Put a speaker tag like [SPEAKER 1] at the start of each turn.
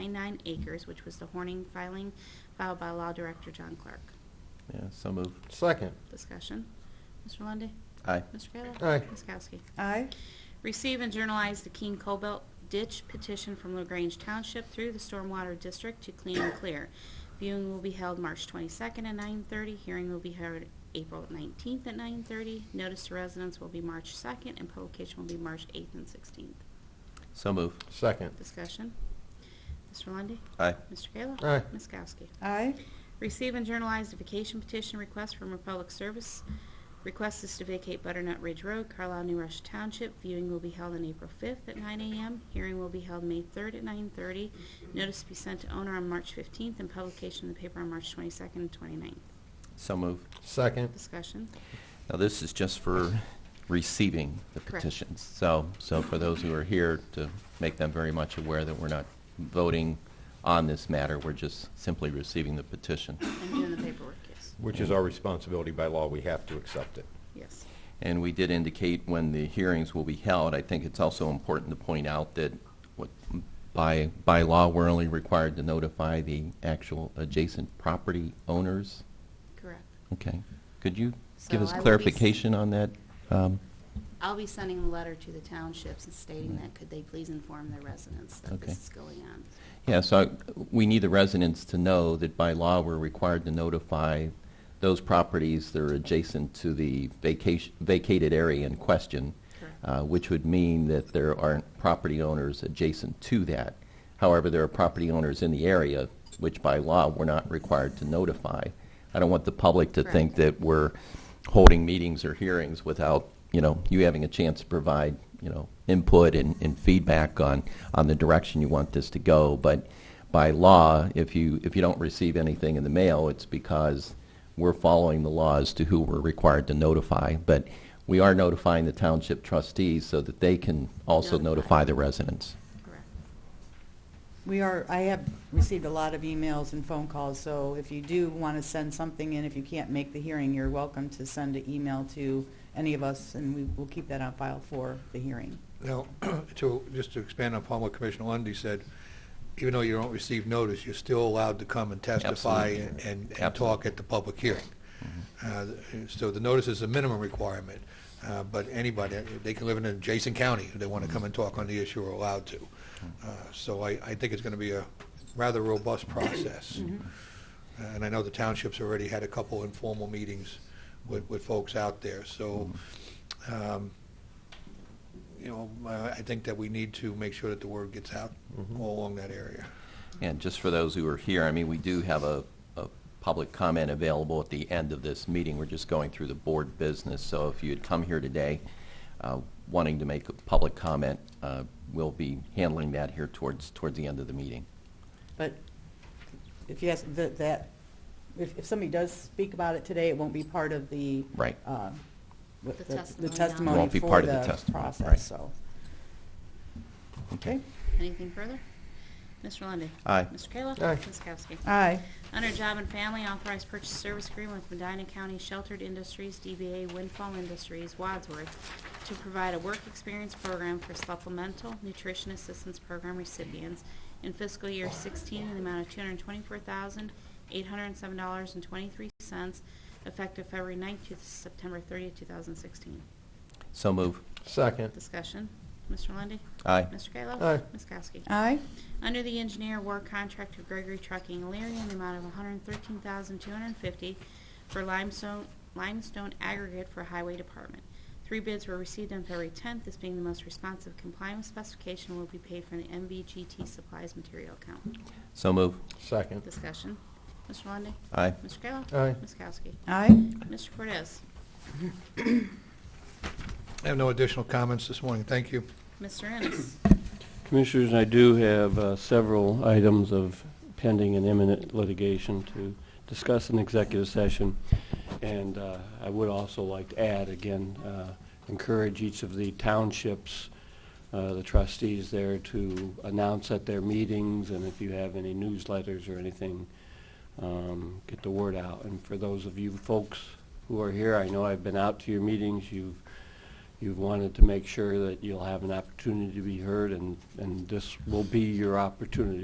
[SPEAKER 1] 1.1 acres, which was the Horning filing filed by Law Director John Clark.
[SPEAKER 2] Yeah, so move.
[SPEAKER 3] Second.
[SPEAKER 1] Discussion. Mr. Lundy.
[SPEAKER 2] Aye.
[SPEAKER 1] Mr. Kayla?
[SPEAKER 3] Aye.
[SPEAKER 1] Ms. Kowski?
[SPEAKER 4] aye,
[SPEAKER 1] Receive and journalize the Keene Cobalt Ditch petition from LaGrange Township through the Stormwater District to clean and clear. Viewing will be held March 22nd at 9:30. Hearing will be held April 19th at 9:30. Notice to residents will be March 2nd, and publication will be March 8th and 16th.
[SPEAKER 2] So move.
[SPEAKER 3] Second.
[SPEAKER 1] Discussion. Mr. Lundy.
[SPEAKER 2] Aye.
[SPEAKER 1] Mr. Kayla?
[SPEAKER 3] Aye.
[SPEAKER 1] Ms. Kowski?
[SPEAKER 4] aye,
[SPEAKER 1] Receive and journalize the vacation petition request from Republic Service. Request is to vacate Butternut Ridge Road, Carlisle, New Russia Township. Viewing will be held on April 5th at 9 a.m. Hearing will be held May 3rd at 9:30. Notice to be sent to owner on March 15th and publication in the paper on March 22nd and 29th.
[SPEAKER 2] So move.
[SPEAKER 3] Second.
[SPEAKER 1] Discussion.
[SPEAKER 2] Now, this is just for receiving the
[SPEAKER 1] Correct.
[SPEAKER 2] petitions. So, so for those who are here, to make them very much aware that we're not voting on this matter, we're just simply receiving the petition.
[SPEAKER 1] And doing the paperwork, yes.
[SPEAKER 3] Which is our responsibility by law, we have to accept it.
[SPEAKER 1] Yes.
[SPEAKER 2] And we did indicate when the hearings will be held. I think it's also important to point out that what, by, by law, we're only required to notify the actual adjacent property owners.
[SPEAKER 1] Correct.
[SPEAKER 2] Okay. Could you give
[SPEAKER 1] So
[SPEAKER 2] us
[SPEAKER 1] I will be s-
[SPEAKER 2] clarification on that? Um,
[SPEAKER 1] I'll be sending a letter to the townships and stating that could they please inform their residents that
[SPEAKER 2] Okay.
[SPEAKER 1] this is going on.
[SPEAKER 2] Yeah, so I- we need the residents to know that by law, we're required to notify those properties that are adjacent to the vacation, vacated area in question,
[SPEAKER 1] Correct.
[SPEAKER 2] uh, which would mean that there aren't property owners adjacent to that. However, there are property owners in the area, which by law, we're not required to notify. I don't want the public to think
[SPEAKER 1] Correct.
[SPEAKER 2] that we're holding meetings or hearings without, you know, you having a chance to provide, you know, input and, and feedback on, on the direction you want this to go. But by law, if you, if you don't receive anything in the mail, it's because we're following the laws to who we're required to notify. But we are notifying the township trustees so that they can also
[SPEAKER 1] Notify.
[SPEAKER 2] notify the residents.
[SPEAKER 1] Correct.
[SPEAKER 4] we are, I have received a lot of emails and phone calls, so if you do want to send something in, if you can't make the hearing, you're welcome to send an email to any of us, and we will keep that on file for the hearing.
[SPEAKER 5] Now, to, just to expand upon what Commissioner Lundy said, even though you don't receive notice, you're still allowed to come and testify
[SPEAKER 2] Absolutely.
[SPEAKER 5] and, and and
[SPEAKER 2] Absolutely. Mm-hmm.
[SPEAKER 5] talk at the public hearing. Uh, So the notice is a minimum requirement, uh, but anybody, they can live in an adjacent county, if they want to come and talk on the issue, are allowed to.
[SPEAKER 2] Mm-hmm.
[SPEAKER 5] Uh, So I, I think it's going to be a rather robust process.
[SPEAKER 2] Mm-hmm.
[SPEAKER 5] Uh, And I know the townships already had a couple informal meetings with, with folks out there, so,
[SPEAKER 2] Mm-hmm.
[SPEAKER 5] um, you know, I I think that we need to make sure that the word gets out all along that area.
[SPEAKER 2] And just for those who are here, I mean, we do have a, a public comment available at the end of this meeting. We're just going through the board business, so if you had come here today uh, wanting to make a public comment, uh, we'll be handling that here towards, towards the end of the meeting.
[SPEAKER 4] But if you ask, that- that, if if somebody does speak about it today, it won't be part of the.
[SPEAKER 2] Right.
[SPEAKER 4] uh, what
[SPEAKER 1] The
[SPEAKER 4] The the
[SPEAKER 1] testimony.
[SPEAKER 4] testimony
[SPEAKER 2] Won't be
[SPEAKER 4] for
[SPEAKER 2] part of the testimony, right.
[SPEAKER 4] Process, so, okay.
[SPEAKER 1] Anything further? Mr. Lundy.
[SPEAKER 2] Aye.
[SPEAKER 1] Mr. Kayla?
[SPEAKER 3] Aye.
[SPEAKER 1] Ms. Kowski?
[SPEAKER 4] Aye,
[SPEAKER 1] Under Job and Family, authorized purchase service agreement with Medina County Sheltered Industries, DBA Windfall Industries, Wadsworth, to provide a work experience program for supplemental nutrition assistance program recipients in fiscal year 16 in the amount of $224,807.23, effective February 9th to September 30th, 2016.
[SPEAKER 2] So move.
[SPEAKER 3] Second.
[SPEAKER 1] Discussion. Mr. Lundy.
[SPEAKER 2] Aye.
[SPEAKER 1] Mr. Kayla?
[SPEAKER 3] Aye.
[SPEAKER 1] Ms. Kowski?
[SPEAKER 4] aye,
[SPEAKER 1] Under the engineer award contract to Gregory Trucking Illyria in the amount of 113250 for limestone limestone aggregate for Highway Department. Three bids were received on February 10th, this being the most responsive complying with specification will be paid from the MVGT Supplies Material Account.
[SPEAKER 2] So move.
[SPEAKER 3] Second.
[SPEAKER 1] Discussion. Mr. Lundey.
[SPEAKER 2] Aye.
[SPEAKER 1] Mr. Kayla.
[SPEAKER 3] Aye.
[SPEAKER 1] Ms. Kowski.
[SPEAKER 4] aye,
[SPEAKER 1] Mr. Cortez.
[SPEAKER 5] I have no additional comments this morning. Thank you.
[SPEAKER 1] Mr. Ennis.
[SPEAKER 6] Commissioners, I do have uh, several items of pending and imminent litigation to discuss in executive session, and uh, I would also like to add, again, uh, encourage each of the townships, uh, the trustees there, to announce at their meetings, and if you have any newsletters or anything, um, get the word out. And for those of you folks who are here, I know I've been out to your meetings, you've you've wanted to make sure that you'll have an opportunity to be heard, and, and this will be your opportunity.